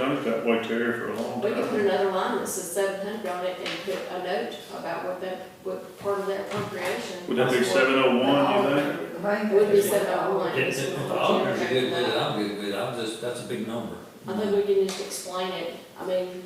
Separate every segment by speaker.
Speaker 1: hundred's got white terrier for a long
Speaker 2: We could put
Speaker 1: time.
Speaker 2: another line that says seven hundred on it and put a note about what that, what part of that appropriation.
Speaker 1: Would that be
Speaker 2: was for.
Speaker 1: seven oh one, you think?
Speaker 2: Would be seven oh one.
Speaker 3: Yes, if the auditors are good with it, I'm good with it, I'm just, that's a big number.
Speaker 2: I think we can just explain it, I mean,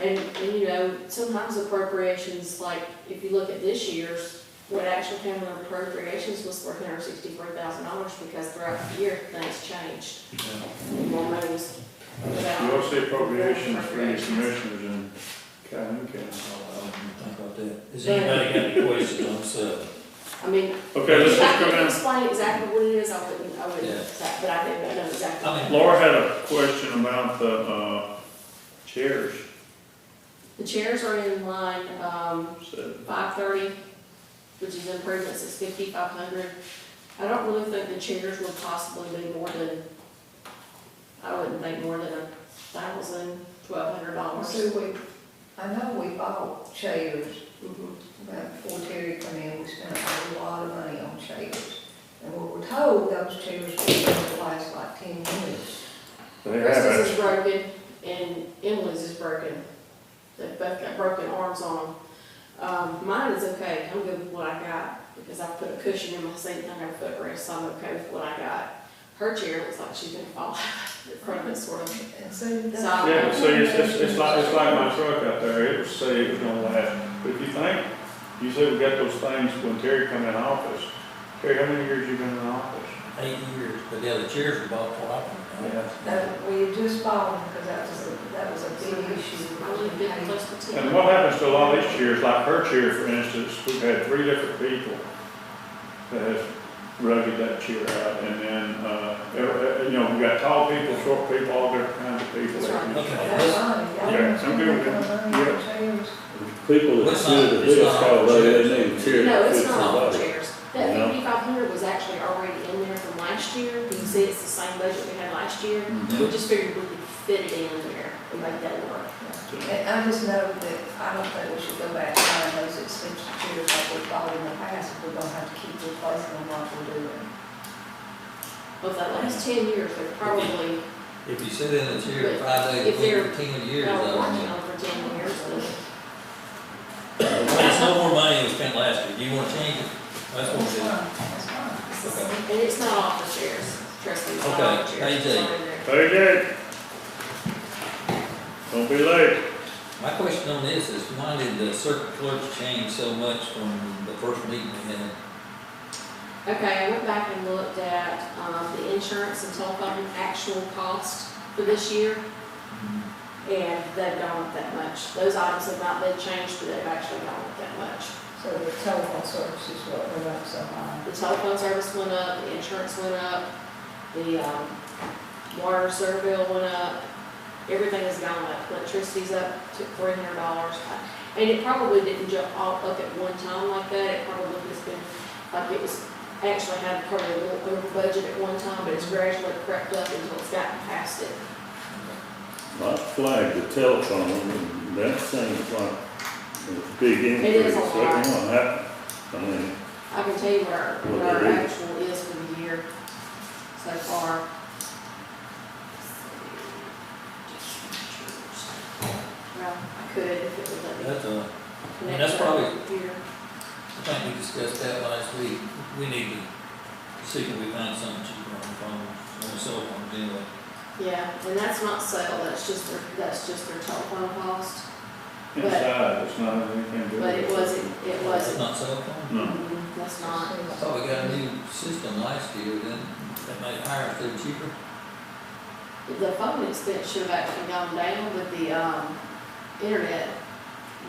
Speaker 2: and, and you know, sometimes appropriations, like, if you look at this year's, what actually came in appropriations was four hundred sixty-four thousand dollars, because throughout the year, things changed. More money was put
Speaker 1: You
Speaker 2: out.
Speaker 1: also say appropriations for your commissioners and county council.
Speaker 3: I didn't think about that. Has anybody got any questions on uh, seven?
Speaker 2: I mean,
Speaker 1: Okay, let's
Speaker 2: if
Speaker 1: just
Speaker 2: I
Speaker 1: go
Speaker 2: could
Speaker 1: down.
Speaker 2: explain exactly what it is, I wouldn't, I
Speaker 3: Yeah.
Speaker 2: wouldn't, say- but I didn't know exactly.
Speaker 3: I mean,
Speaker 1: Laura had a question about the, uh, chairs,
Speaker 2: The chairs are in line, um,
Speaker 1: so.
Speaker 2: five thirty, which is improvements, it's fifty-five hundred. I don't really think the chairs would possibly be more than, I wouldn't think more than a thousand, twelve hundred dollars.
Speaker 4: See, we, I know we bought chairs,
Speaker 2: Mhm.
Speaker 4: but before Terry come in, we spent a lot of money on chairs. And we were told those chairs were gonna last like ten years.
Speaker 1: They have
Speaker 2: Chris's
Speaker 1: actually,
Speaker 2: is broken and Emily's is broken. They've both got broken arms on them. Um, mine is okay, I'm good with what I got, because I put a cushion in my seat and I got a footrest, so I'm okay with what I got. Her chair looks like she's gonna fall out in front of it, sort of.
Speaker 4: And so. that's-
Speaker 2: So-
Speaker 1: yeah, see, it's, it's, it's like, it's like my truck out there, it was say it was gonna last, but if you think, you say we got those things when Terry come in office. Terry, how many years you been in office?
Speaker 3: eight years, but the other chairs were bought for I
Speaker 1: Yeah.
Speaker 4: That, we had just bought them, because that was, a- that was a big
Speaker 2: I would have been
Speaker 4: issue.
Speaker 2: close to ten.
Speaker 1: And what happens to a lot of these chairs, like her chair, for instance, we've had three different people that has rugged that chair out, and then, uh, every- you know, we've got tall people, short people, all different kinds of people.
Speaker 2: That's right.
Speaker 3: Okay,
Speaker 4: That's
Speaker 3: let's,
Speaker 4: funny. Y'all
Speaker 1: Yeah,
Speaker 4: don't
Speaker 1: I'm
Speaker 4: spend
Speaker 1: good with
Speaker 4: that
Speaker 1: that.
Speaker 4: kind of money on chairs.
Speaker 5: People that do the bills call, they need to.
Speaker 2: No, it's not all chairs. That
Speaker 1: No.
Speaker 2: fifty-five hundred was actually already in there from last year. You see, it's the same budget we had last year.
Speaker 1: Mm-hmm.
Speaker 2: We just figured we could fit it in there and make that work.
Speaker 4: And I just know that I don't think we should go back and find those expensive chairs like we bought in the past, if we're gonna have to keep replacing them like we're doing.
Speaker 2: But that last ten years, they're probably,
Speaker 3: if you sit in a chair five days
Speaker 2: If
Speaker 3: a week
Speaker 2: they're-
Speaker 3: for ten years, I
Speaker 2: well,
Speaker 3: don't
Speaker 2: working
Speaker 3: know.
Speaker 2: on for ten years.
Speaker 3: It's no more money than we spent last year, do you wanna change it? That's what
Speaker 4: That's
Speaker 3: we're
Speaker 4: fine, that's fine.
Speaker 3: Okay.
Speaker 2: And it's not all the chairs, trust me, it's not
Speaker 3: Okay,
Speaker 2: all the chairs.
Speaker 3: AJ.
Speaker 2: It's all in there.
Speaker 1: Very good. Don't be late.
Speaker 3: My question on this is, why did the circuit clerk change so much from the first meeting we had?
Speaker 2: Okay, I went back and looked at, um, the insurance and telephone actual cost for this year.
Speaker 3: Mm-hmm.
Speaker 2: And they've gone up that much. Those items have not been changed, but they've actually gone up that much.
Speaker 4: So the telephone service is what went up so high.
Speaker 2: The telephone service went up, the insurance went up, the, um, water sewer bill went up. Everything has gone up. Electricity's up to three hundred dollars. And it probably didn't jump all up at one time like that. It probably has been, like it was, actually had probably a little over budget at one time, but it's gradually crept up until it's gotten past it.
Speaker 5: I flagged the telephone, and that seems like a big
Speaker 2: It
Speaker 5: increase.
Speaker 2: is a
Speaker 5: That
Speaker 2: lot.
Speaker 5: one happened. I mean,
Speaker 2: I can tell you what our, what our actual is for the year so far. Well, I could if it would let me.
Speaker 3: That's a,
Speaker 2: connect
Speaker 3: That's
Speaker 2: to the
Speaker 3: probably-
Speaker 2: computer.
Speaker 3: I think we discussed that last week, we need to see if we find something cheaper on the phone, on the cell phone, anyway.
Speaker 2: Yeah, and that's not sale, that's just their, that's just their telephone cost,
Speaker 1: Inside, it's not anything to do
Speaker 2: but it
Speaker 1: with.
Speaker 2: wasn't, it
Speaker 3: It's
Speaker 2: wasn't,
Speaker 3: Not cell phone?
Speaker 1: No.
Speaker 2: Mm, that's not.
Speaker 3: I thought we got a new system last year, then that made it higher, still cheaper.
Speaker 2: The phone expense should have actually gone down, but the, um, internet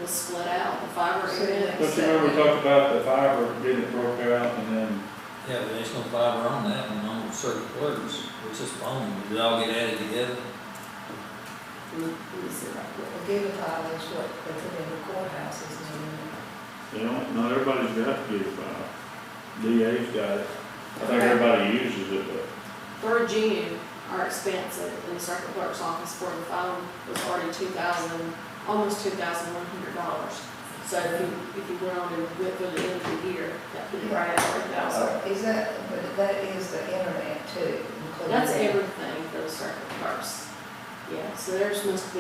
Speaker 2: was split out, the fiber
Speaker 4: So,
Speaker 2: internet. was
Speaker 1: But you remember we
Speaker 2: separate.
Speaker 1: talked about the fiber getting it broke out and then,
Speaker 3: Yeah, but there's no fiber on that, and on circuit clerks, it's just phone, did it all get added together?
Speaker 2: Let me- let me see right quick.
Speaker 4: Well, Gigabyte is what they put in the courthouses and
Speaker 1: you know, not everybody's got to get a fiber. DA's got it. I think everybody uses it, but.
Speaker 2: For June, our expense in the circuit clerk's office for the phone was already two thousand, almost two thousand one hundred dollars. So if you, if you went on and went through the end of the year, that would be right at three thousand.
Speaker 4: everything. Is that, but that is the internet too? including
Speaker 2: That's
Speaker 4: that?
Speaker 2: everything for the circuit clerks. Yeah, so there's must be